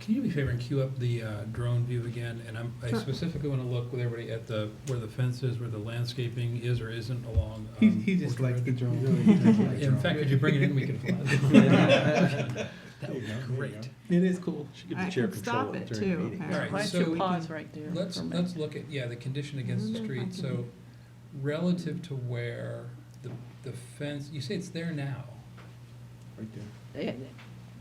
Can you do me a favor and queue up the uh, drone view again? And I'm, I Sure. specifically want to look with everybody at the, where the fence is, where the landscaping is or isn't along. He, um, he just Orchard likes the Ridge. drone. Really does like Yeah, In drone. fact, could you bring it in, we can fly. Yeah. That would There you go, there be you great. It is cool. She could I be chair can stop controller it during the too, meeting. All right, apparently. Why don't so you we can- pause right there Let's, for a minute? let's look at, yeah, the condition against the wonder if I street, so relative to where the, the fence, you say it's there now. Right there. It-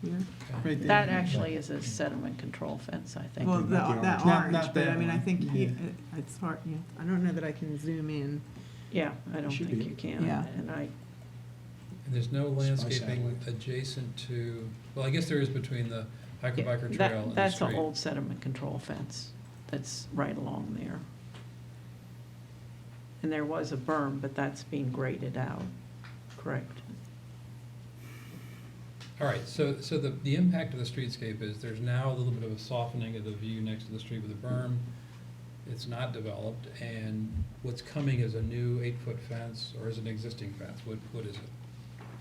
Yeah. okay? Right there. That actually is a sediment control fence, I think. Well, not the, the that orange. Not- orange, not but I that mean, I one. think he- Yeah. it- it's hard, yeah, I don't know that I can zoom in. Yeah, I don't Should think be. you can. Yeah. And I, And there's no It's by landscaping satellite. adjacent to, well, I guess there is between the hiker biker trail that, and the that's an street. old sediment control fence that's right along there. And there was a berm, but that's being graded out, correct? All right, so, so the, the impact of the streetscape is there's now a little bit of a softening of the view next to the street with a berm. It's not developed, and what's coming is a new eight-foot fence, or is an existing fence? What, what is it?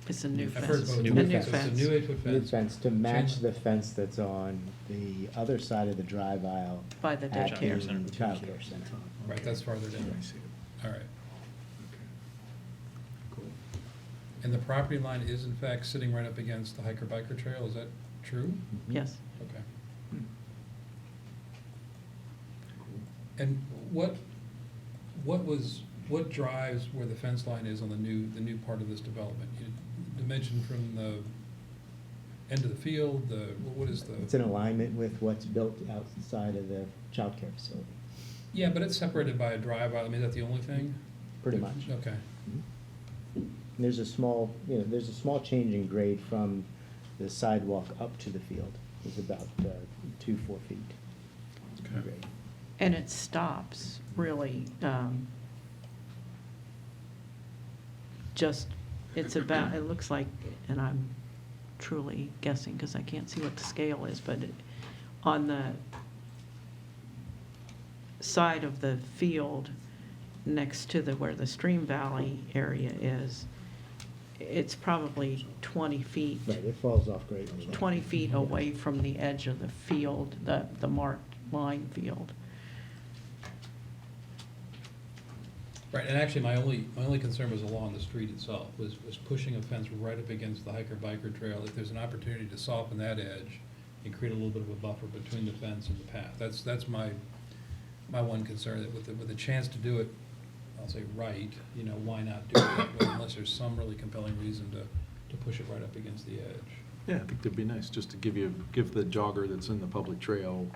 It's a new I've heard fence. both. A New fence. new So it's a fence. new eight-foot New fence. fence to match Change- the fence that's on the other side of the drive aisle. By the at daycare the center. Childcare center. Right, that's farther Yeah, down. I see it. All right. Okay. Cool. And the property line is in fact sitting right up against the hiker biker trail, is that true? Mm-hmm. Yes. Okay. Hmm. And what, what was, what drives where the fence line is on the new, the new part of this development? You Dimension from the end of the field, the, what is the? It's in alignment with what's built outside of the childcare facility, Yeah, but it's separated by a drive aisle, I mean, is that the only thing? pretty much. Okay, Mhm. There's a small, you know, there's a small change in grade from the sidewalk up to the field. It's about uh, two, four feet. in Okay. grade. And it stops really, um, just, it's about, it looks like, and I'm truly guessing because I can't see what the scale is, but it- on the side of the field next to the, where the stream valley area is, it's probably 20 feet. Right, it falls off greatly. 20 feet away from the edge of the field, the, the marked line field. right, and actually, my only, my only concern was along the street itself, was, was pushing a fence right up against the hiker biker trail. If there's an opportunity to soften that edge and create a little bit of a buffer between the fence and the path, that's, that's my, my one concern, that with, the- with a chance to do it, I'll say right, you know, why not do it that way unless there's some really compelling reason to, to push it right up against the edge. Yeah, I think that'd be nice, just to give you, give the jogger that's in the public trail,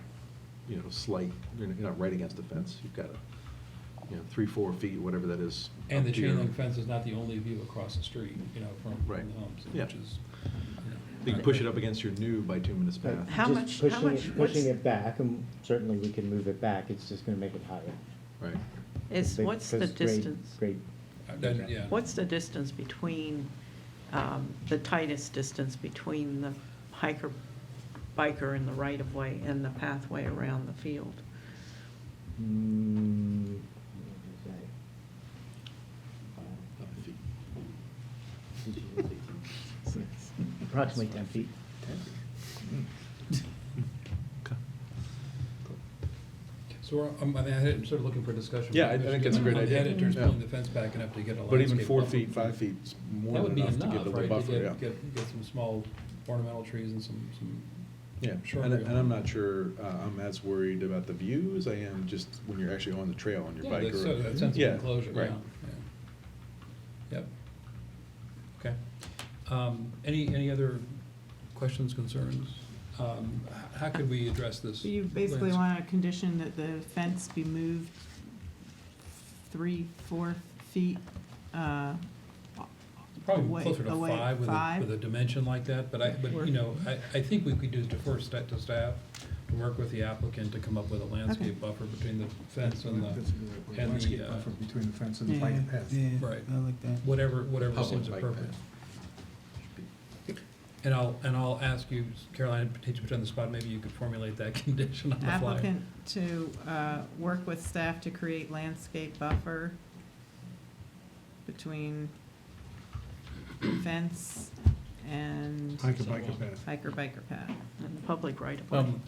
you know, slight, you're not- you're not right against the fence. You've got a, you know, three, four feet, whatever that is. And the up to your- chain link fence is not the only view across the street, you know, from, Right. from the homes, Yeah. which is, you know. You can push it up against your new bituminous Right, path. How just much- pushing how it- much- what's- Pushing it back, and certainly we can move it back, it's just gonna make it higher. Right. Is, Big- what's the 'cause grade- distance? Grade Uh, that- Yeah. What's the distance between, um, the tightest distance between the hiker, biker in the right-of-way and the pathway around the field? Mm, what did I Five feet. say? Approximately ten feet. Okay. So we're, um, I'm, I'm at it, I'm sort of looking for a discussion. Yeah, I- I think that's a great On the idea. editors Yeah. pulling the fence back enough to get a landscape. But even four buffer. feet, five feet's more That would than be enough to enough, give a little right, to buffer, yeah. get, get, get some small ornamental trees and some, some. Yeah, Sure. and, and I'm not sure, uh, I'm as worried about the view as I am just when you're actually on the trail on your Yeah, bike that's- or. so That sense of Yeah, enclosure, yeah, right. yeah. Yep. Okay. Um, any, any other questions, concerns? Um, h- how could we address this? So you basically landscape? want a condition that the fence be moved three, four feet, uh, Probably away- closer to away five with a, five? with a dimension like that, but I, but, Or- you know, I, I think we could do is defer sta- to staff, to work with the applicant to come up with a landscape buffer between the fence and the, That's a good way. and the, Landscape uh, buffer between the fence and the Yeah, bike path. yeah, Right. I like that. whatever, whatever Public seems bike appropriate. path. And I'll, and I'll ask you, Caroline, to put you on the spot, maybe you could formulate that condition on the fly. applicant to, uh, work with staff to create landscape buffer between fence and Hike a bike path. hiker biker path. And the public right-of-way? Um,